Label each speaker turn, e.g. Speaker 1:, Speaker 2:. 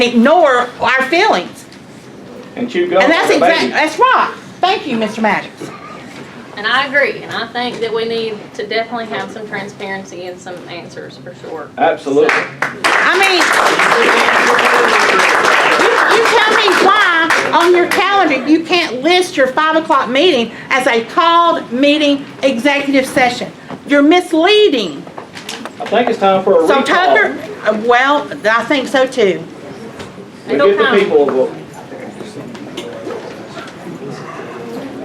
Speaker 1: ignore our feelings.
Speaker 2: and chew gum.
Speaker 1: And that's
Speaker 2: for the
Speaker 1: exactly,
Speaker 2: baby.
Speaker 1: that's right. Thank you, Mr. Maddox.
Speaker 3: And I agree, and I think that we need to definitely have some transparency and some answers for sure.
Speaker 2: Absolutely.
Speaker 1: I mean, you, you tell me why on your calendar you can't list your five o'clock meeting as a called meeting executive session. You're misleading.
Speaker 2: I think it's time for a
Speaker 1: So
Speaker 2: recall.
Speaker 1: Tucker, uh, well, I think so too.
Speaker 2: We give
Speaker 3: It'll
Speaker 2: the
Speaker 3: come.
Speaker 2: people a vote.